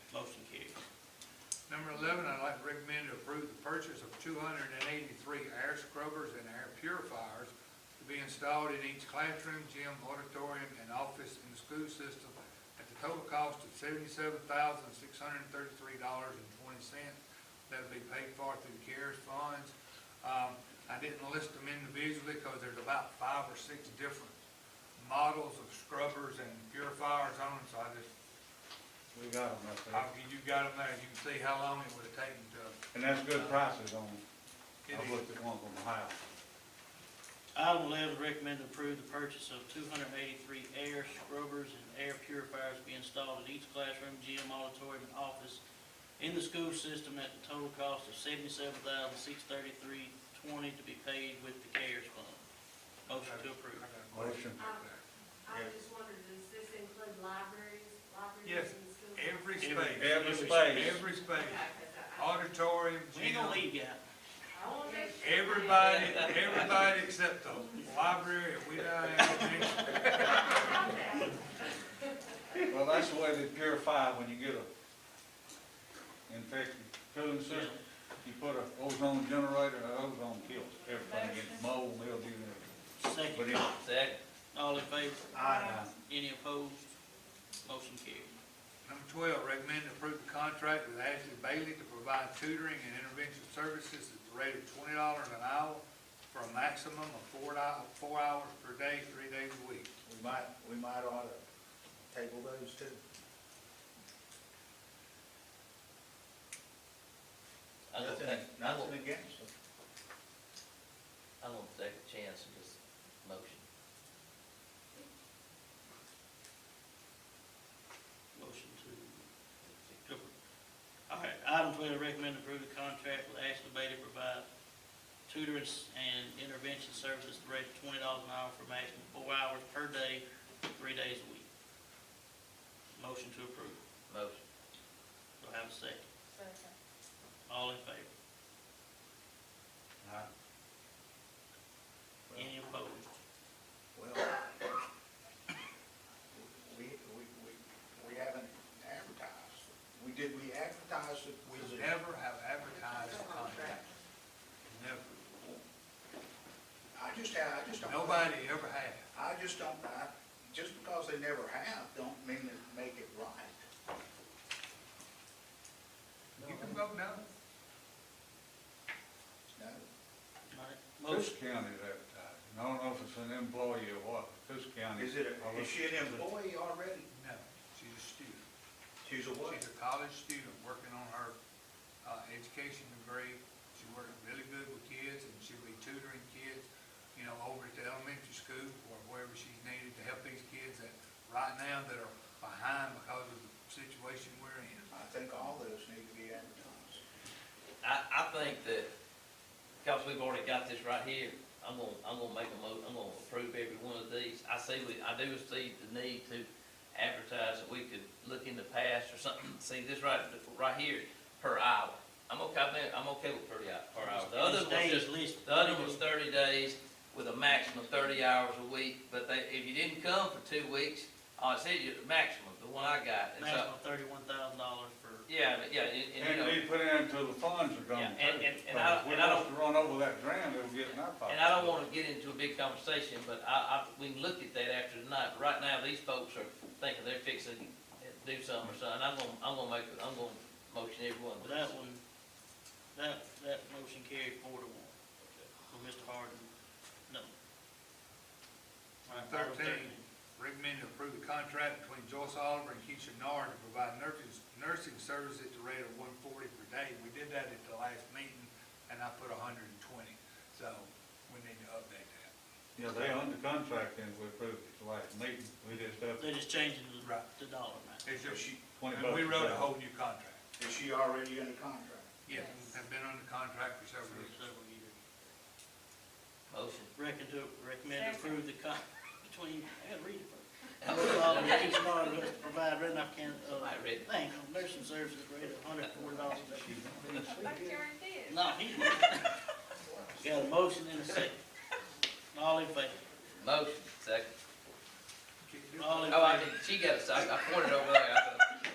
eleven, I'd like to recommend to approve the purchase of two hundred and eighty-three air scrubbers and air purifiers to be installed in each classroom, gym, auditorium, and office in the school system at the total cost of seventy-seven thousand, six hundred and thirty-three dollars and twenty cents. That'll be paid for through the CARES funds. Um, I didn't list them individually because there's about five or six different models of scrubbers and purifiers on, them, so I just We got them up there. I'll give you got them there, you can see how long it would have taken to And that's good prices on, get I it. looked at one from Ohio. Item eleven, recommend to approve the purchase of two hundred and eighty-three air scrubbers and air purifiers to be installed in each classroom, gym, auditorium, and office in the school system at the total cost of seventy-seven thousand, six thirty-three, twenty to be paid with the CARES fund. Motion to I approve. got a question. I was just wondering, does this include libraries, Yes, libraries and schools? Every space, Every Every- space, every space, Okay, 'cause I- auditorium, We ain't gonna gym, leave you out. I wanna make sure. everybody, everybody except the library, if we don't have any. Okay. well, that's the way they purify when you get a infected cooling system. You put a ozone generator, a ozone kills everything, gets mold, mildew, and everything. But Second, it, Second. all in favor? I, Any opposed? Motion carried. Number twelve, recommend to approve the contract with Ashley Bailey to provide tutoring and intervention services at the rate of twenty dollars an hour for a maximum of four di- four hours per day, three days a week. We might, we might ought to table those too. I don't Nothing, think, I nothing don't, against them. I don't take a chance and just motion. Motion to, to approve. All right, item twelve, recommend to approve the contract with Ashley Bailey to provide tutors and intervention services at the rate of twenty dollars an hour for maximum four hours per day, three days a week. Motion to approve. Motion. Do I have a second? All in favor? I, Any opposed? Well, we, we, we, we haven't advertised. We did, we advertised it, We was it? never have advertised the contract. Never. I just, I just don't. Nobody ever had. I just don't, I, just because they never have, don't mean to make it right. You can vote no. No, All right, Coos Motion, County's advertising, I don't know if it's an employee or what, but Coos County. is I it, a- looked- is she an employee already? No, she's a student. She's a what? She's a college student working on her uh, education degree. She's working really good with kids and she'll be tutoring kids, you know, over at the elementary school or wherever she's needed to help these kids that right now that are behind because of the situation we're in. I think all those need to be advertised. I, I think that, because we've already got this right here, I'm gonna, I'm gonna make a mo, I'm gonna approve every one of these. I see, we, I do see the need to advertise that we could look in the past or something. See, this right, right here, per hour. I'm okay, with- I'm okay with per hour, per hour. The other these one's just days listed. The other was thirty days with a maximum of thirty hours a week, but they, if you didn't come for two weeks, I said you, the maximum, the one I got. And so, Maximum thirty-one thousand dollars for, yeah, but yeah, and, and, you And know, they put it until the funds are gone. Yeah, and- and- too. and I- We're and I don't- supposed to run over that ground, it'll get in our pocket. and I don't wanna get into a big conversation, but I, I, we can look at that after tonight. But Right now, these folks are thinking they're fixing to do something or something. I'm gonna, I'm gonna make, I'm gonna motion everyone. well, that one, that, that motion carried four to one. For Mr. Harden, no. All right, item Thirteen, recommend to approve the contract between Joyce Oliver and Keisha Nard to provide nursing, nursing service at the rate of one forty per day. We did that at the last meeting, and I put hundred and twenty, so we need to update that. Yeah, they under contract and we approved it last meeting, we just up They're just changing Right. the, the dollar amount. It's Is just, she, twenty and bucks. we a wrote a day. whole new contract. is she already under contract? Yeah, have been under contract for several years. Several years. Motion. Reckon to, recommend to approve the con, between, I gotta read it first. I Mr. Oliver, Keith Smart, to provide Red Knife County, uh, might read it. thing, nursing services rate of hundred and four dollars a day. I guarantee it. No, he, got a motion and a second. All in favor? Motion, second. All in Oh, I favor? Oh, did, she got a second. I pointed over there. I thought-